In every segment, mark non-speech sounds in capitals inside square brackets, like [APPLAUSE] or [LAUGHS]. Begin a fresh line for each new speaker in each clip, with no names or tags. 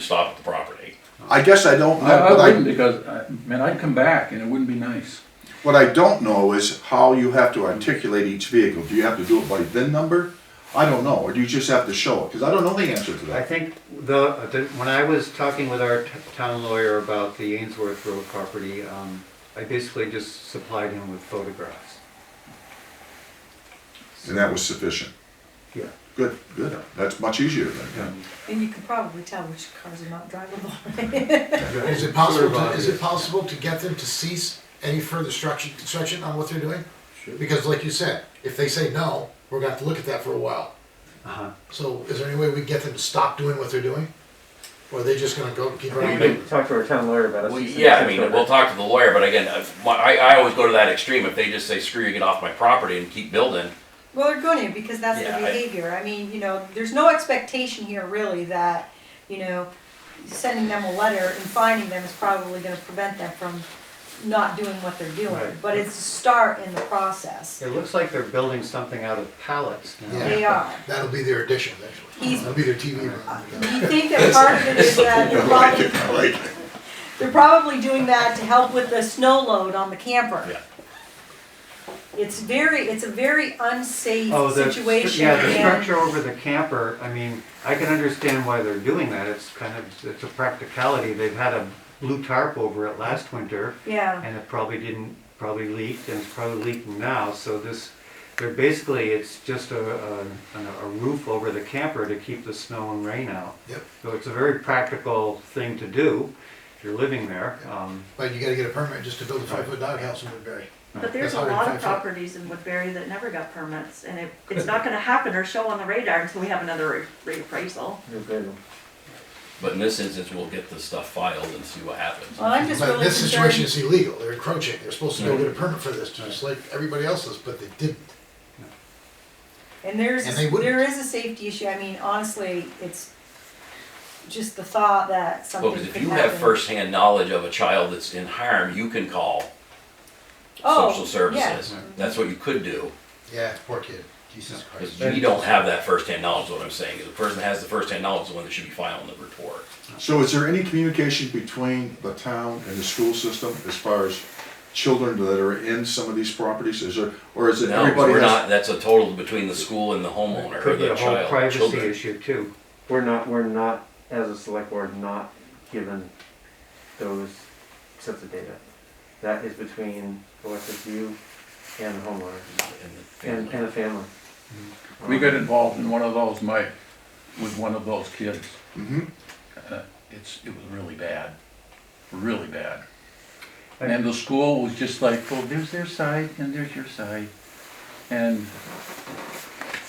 stop at the property.
I guess I don't know,
I, I
but
wouldn't
I,
because, I- man, I'd come back and it wouldn't be nice.
what I don't know is how you have to articulate each vehicle. Do you have to do it by VIN number? I don't know, or do you just have to show it? Because I don't know the answer to
I
that.
think the, the, when I was talking with our t- town lawyer about the Ainsworth Road property, um, I basically just supplied him with photographs.
And that was sufficient.
Yeah.
Good, good. That's much easier then.
And you can probably tell which cars are not drivable. [LAUGHS]
Is it possible, to- is it possible to get them to cease any further structure, construction on what they're doing? Because like you said, if they say no, we're gonna have to look at that for a while.
Uh-huh.
So is there any way we get them to stop doing what they're doing? Or are they just gonna go, keep
You
running?
can talk to our town lawyer about it.
Well,
She's-
yeah, I mean, we'll talk to the lawyer, but again, uh, my- I, I always go to that extreme. If they just say, screw you, get off my property and keep building,
Well, they're going to because that's
Yeah,
their
I-
behavior. I mean, you know, there's no expectation here really that, you know, sending them a letter and finding them is probably gonna prevent them from not doing what they're doing.
Right.
But it's a start in the process.
It looks like they're building something out of pallets now.
Yeah.
They are.
That'll be their addition, actually.
He's-
That'll be their TV room.
Do
[LAUGHS]
you think that part of it is that they're probably,
I [LAUGHS] like it.
they're probably doing that to help with the snow load on the camper?
Yeah.
It's very, it's a very unsafe
Oh, the,
situation
yeah, the
and
structure over the camper, I mean, I can understand why they're doing that, it's kind of, it's a practicality, they've had a blue tarp over it last winter,
Yeah.
and it probably didn't, probably leaked, and it's probably leaking now, so this, they're basically, it's just a, a, a roof over the camper to keep the snow and rain out.
Yep,
So it's a very practical thing to do, if you're living there, um,
but you gotta get a permit just to build a five-foot doghouse in Woodbury.
But there's
That's
a lot of
105 foot.
properties in Woodbury that never got permits, and it, it's not gonna happen or show on the radar until we have another re- reappraisal.
You're good.
but in this instance, we'll get this stuff filed and see what happens.
Well, I'm just
But
really
this situation
concerned,
is illegal, they're encroaching, they're supposed to go get a permit for this, just like everybody else's, but they didn't.
and there's,
and they wouldn't.
there is a safety issue, I mean, honestly, it's just the thought that
Well,
something could
because
happen.
if you have firsthand knowledge of a child that's in harm, you can call
Oh,
social
yeah. Mm-hmm.
services. That's what you could do,
Yeah, poor kid, Jesus Christ.
because we don't have that firsthand knowledge, what I'm saying. is The person that has the firsthand knowledge is the one that should be filing the report.
So is there any communication between the town and the school system as far as children that are in some of these properties? Is there, or is it
No,
everybody
we're
has?
not, that's a total between the school and the homeowner, or
could be
the
a whole
child,
privacy
children.
issue too.
We're not, we're not, as a select board, not given those sets of data. That is between OSSU and the homeowner,
and the family.
and, and the family.
We got involved in one of those, Mike, with one of those kids.
Mhm.
Uh, It's, it was really bad, really bad. And the school was just like, well, there's their side and there's your side. And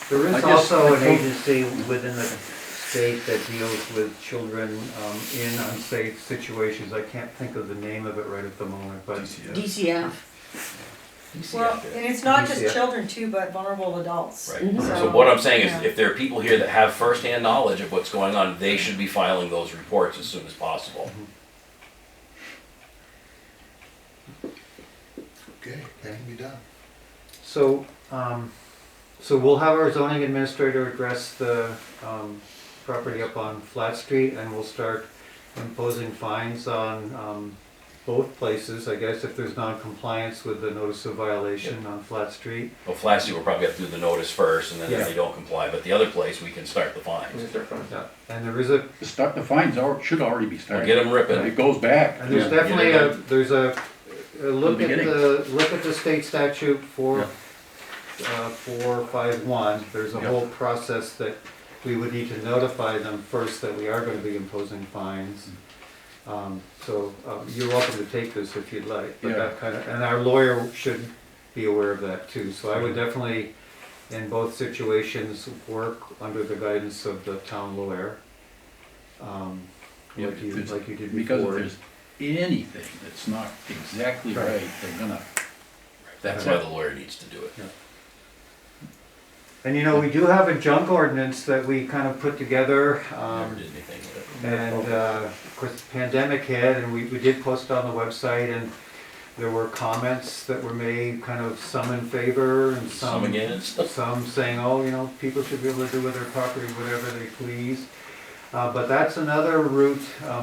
There
I
is
just-
also an
I think-
agency within the state that deals with children um, in unsafe situations. I can't think of the name of it right at the moment, but
DCF.
You see
Well,
out there.
and it's not
Yeah.
just children too, but vulnerable adults.
Right, so what I'm saying is,
yeah.
if there are people here that have firsthand knowledge of what's going on, they should be filing those reports as soon as possible.
Okay, that can be done.
so, um, so we'll have our zoning administrator address the um, property up on Flat Street and we'll start imposing fines on um, both places, I guess, if there's non-compliance with the notice of violation on Flat Street.
Well, Flassy will probably have to do the notice first, and then if
Yeah.
they don't comply, but the other place, we can start the
Let me
fines.
start from-
Yeah, And there is a
the stuff, the fines are, should already be
We'll
started.
get them ripping.
It goes back.
And there's
Yeah.
definitely
Yeah.
a, there's a, a look
The
at the, look at the state statute for,
Yeah.
uh, four, five, one. There's a
Yeah.
whole process that we would need to notify them first that we are gonna be imposing fines. Um, so, um, you're welcome to take this if you'd like, but
Yeah.
that kind of, and our lawyer should be aware of that too. So I would
Mm-hmm.
definitely, in both situations, work under the guidance of the town lawyer. Um,
Yeah,
like you,
if it's-
like you did before.
Because if there's anything that's not exactly
Right.
right, they're gonna,
That's why the lawyer needs to do it.
And you know, we do have a junk ordinance that we kind of put together,
Never
um,
did anything with it.
and, uh, of course, the pandemic hit, and we, we did post it on the website, and there were comments that were made, kind of some in favor, and some.
Some against.
Some saying, oh, you know, people should be able to do with their property whatever they please. Uh, But that's another route um,